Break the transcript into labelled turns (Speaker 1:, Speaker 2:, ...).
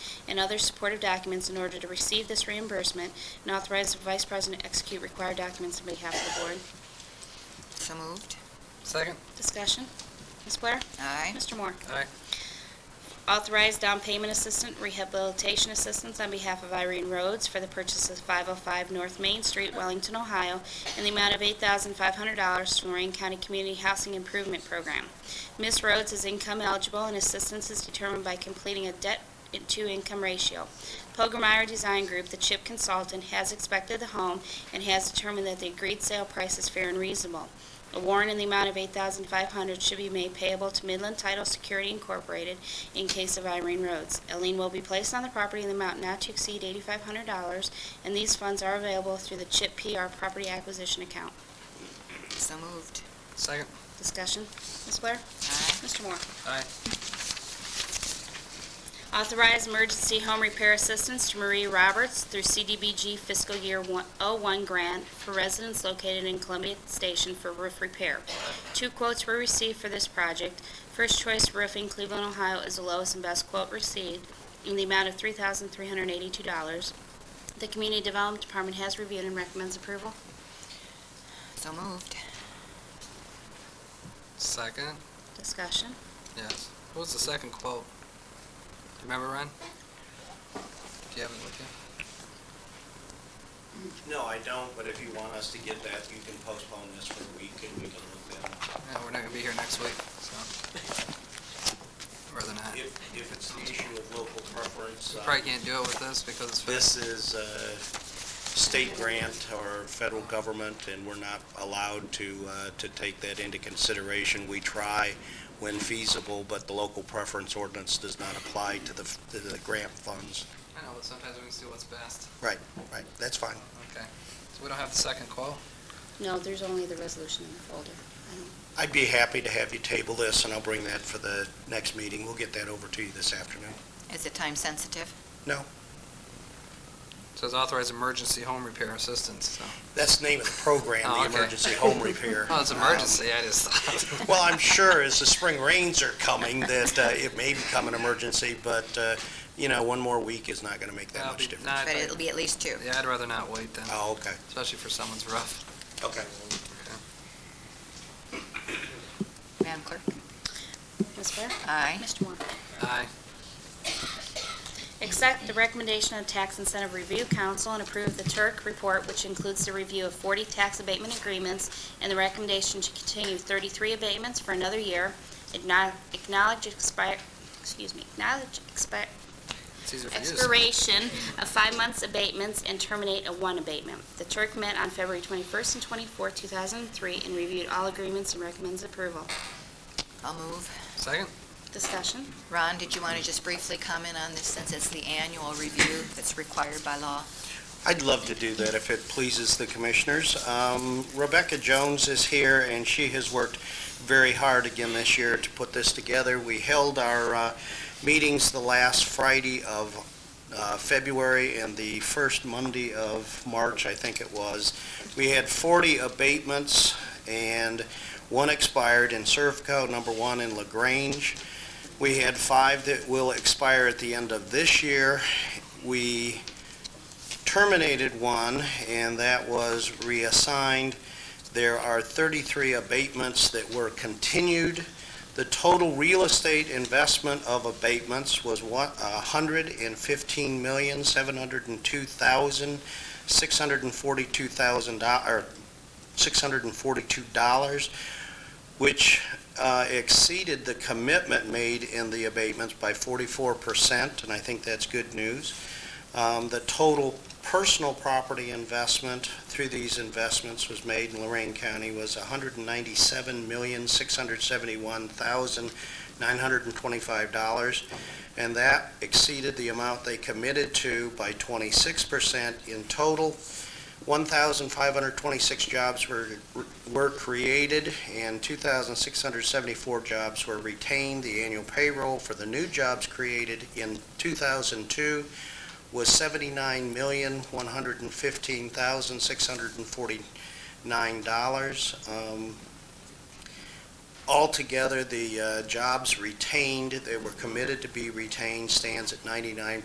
Speaker 1: and other supportive documents in order to receive this reimbursement, and authorize the Vice President to execute required documents on behalf of the Board.
Speaker 2: So moved.
Speaker 3: Second?
Speaker 1: Discussion. Ms. Blair?
Speaker 2: Aye.
Speaker 1: Mr. Moore?
Speaker 3: Aye.
Speaker 1: Authorize down payment assistant rehabilitation assistance on behalf of Irene Rhodes for the purchase of 505 North Main Street, Wellington, Ohio, in the amount of $8,500 from Lorraine County Community Housing Improvement Program. Ms. Rhodes is income eligible, and assistance is determined by completing a debt-to-income ratio. Pogomire Design Group, the CHIP consultant, has inspected the home and has determined that the agreed sale price is fair and reasonable. A warrant in the amount of $8,500 should be made payable to Midland Title Security Incorporated in case of Irene Rhodes. A lien will be placed on the property in the amount not to exceed $8,500, and these funds are available through the CHIP PR Property Acquisition Account.
Speaker 2: So moved.
Speaker 3: Second?
Speaker 1: Discussion? Ms. Blair?
Speaker 2: Aye.
Speaker 1: Mr. Moore?
Speaker 3: Aye.
Speaker 1: Authorize emergency home repair assistance to Marie Roberts through CDBG fiscal year one- 01 grant for residents located in Columbia Station for roof repair. Two quotes were received for this project. First Choice Roofing Cleveland, Ohio is the lowest and best quote received in the amount of $3,382. The Community Development Department has reviewed and recommends approval.
Speaker 2: So moved.
Speaker 3: Second?
Speaker 1: Discussion.
Speaker 3: Yes. What was the second quote? Do you remember, Ron? Do you have it with you?
Speaker 4: No, I don't, but if you want us to get that, you can postpone this for a week and we can look at it.
Speaker 3: Yeah, we're not gonna be here next week, so. Rather not.
Speaker 4: If, if it's the issue of local preference, uh,
Speaker 3: Probably can't do it with this because it's.
Speaker 4: this is a state grant or federal government and we're not allowed to, uh, to take that into consideration. We try when feasible, but the local preference ordinance does not apply to the, to the grant funds.
Speaker 3: I know, but sometimes we can see what's best.
Speaker 4: Right, right, that's fine.
Speaker 3: Okay. So we don't have the second quote?
Speaker 1: No, there's only the resolution in the folder.
Speaker 4: I'd be happy to have you table this and I'll bring that for the next meeting. We'll get that over to you this afternoon.
Speaker 2: Is it time sensitive?
Speaker 3: Says authorize emergency home repair assistance, so.
Speaker 4: That's the name of the program,
Speaker 3: Oh,
Speaker 4: the
Speaker 3: okay.
Speaker 4: emergency home repair.
Speaker 3: Oh, it's emergency, I just thought.
Speaker 4: Um, Well, I'm sure as the spring rains are coming, that uh, it may become an emergency, but, uh, you know, one more week is not going to make that
Speaker 3: That'll
Speaker 4: much
Speaker 3: be-
Speaker 4: difference.
Speaker 3: nah, I'd
Speaker 2: But
Speaker 3: like-
Speaker 2: it'll be at least two.
Speaker 3: Yeah, I'd rather not wait then,
Speaker 4: Oh, okay,
Speaker 3: especially for someone's rough.
Speaker 4: okay.
Speaker 2: Madam Clerk?
Speaker 1: Ms. Blair?
Speaker 2: Aye.
Speaker 1: Mr. Moore?
Speaker 3: Aye.
Speaker 1: Accept the recommendation of Tax Incentive Review Council and approve the Turk report, which includes the review of 40 tax abatement agreements and the recommendation to continue 33 abatements for another year. Acknow- Acknowledge expire, excuse me, acknowledge expi-
Speaker 3: It's easier for you to say.
Speaker 1: expiration of five months abatements and terminate a one abatement. The Turk met on February 21st and 24th, 2003, and reviewed all agreements and recommends approval.
Speaker 2: I'll move.
Speaker 3: Second?
Speaker 1: Discussion?
Speaker 2: Ron, did you want to just briefly comment on this since it's the annual review that's required by law?
Speaker 4: I'd love to do that if it pleases the commissioners. Um, Rebecca Jones is here, and she has worked very hard again this year to put this together. We held our uh, meetings the last Friday of uh, February and the first Monday of March, I think it was. We had 40 abatements, and one expired in Servco, number one in LaGrange. We had five that will expire at the end of this year. We terminated one, and that was reassigned. There are 33 abatements that were continued. The total real estate investment of abatements was one- $115,702,642, or $642, which uh, exceeded the commitment made in the abatements by 44%, and I think that's good news. Um, The total personal property investment through these investments was made in Lorraine County was $197,671,925, and that exceeded the amount they committed to by 26% in total. 1,526 jobs were were created, and 2,674 jobs were retained. The annual payroll for the new jobs created in 2002 was seventy-nine million, one hundred and fifteen thousand, six hundred and forty-nine dollars. Um, Altogether, the uh, jobs retained, that were committed to be retained, stands at ninety-nine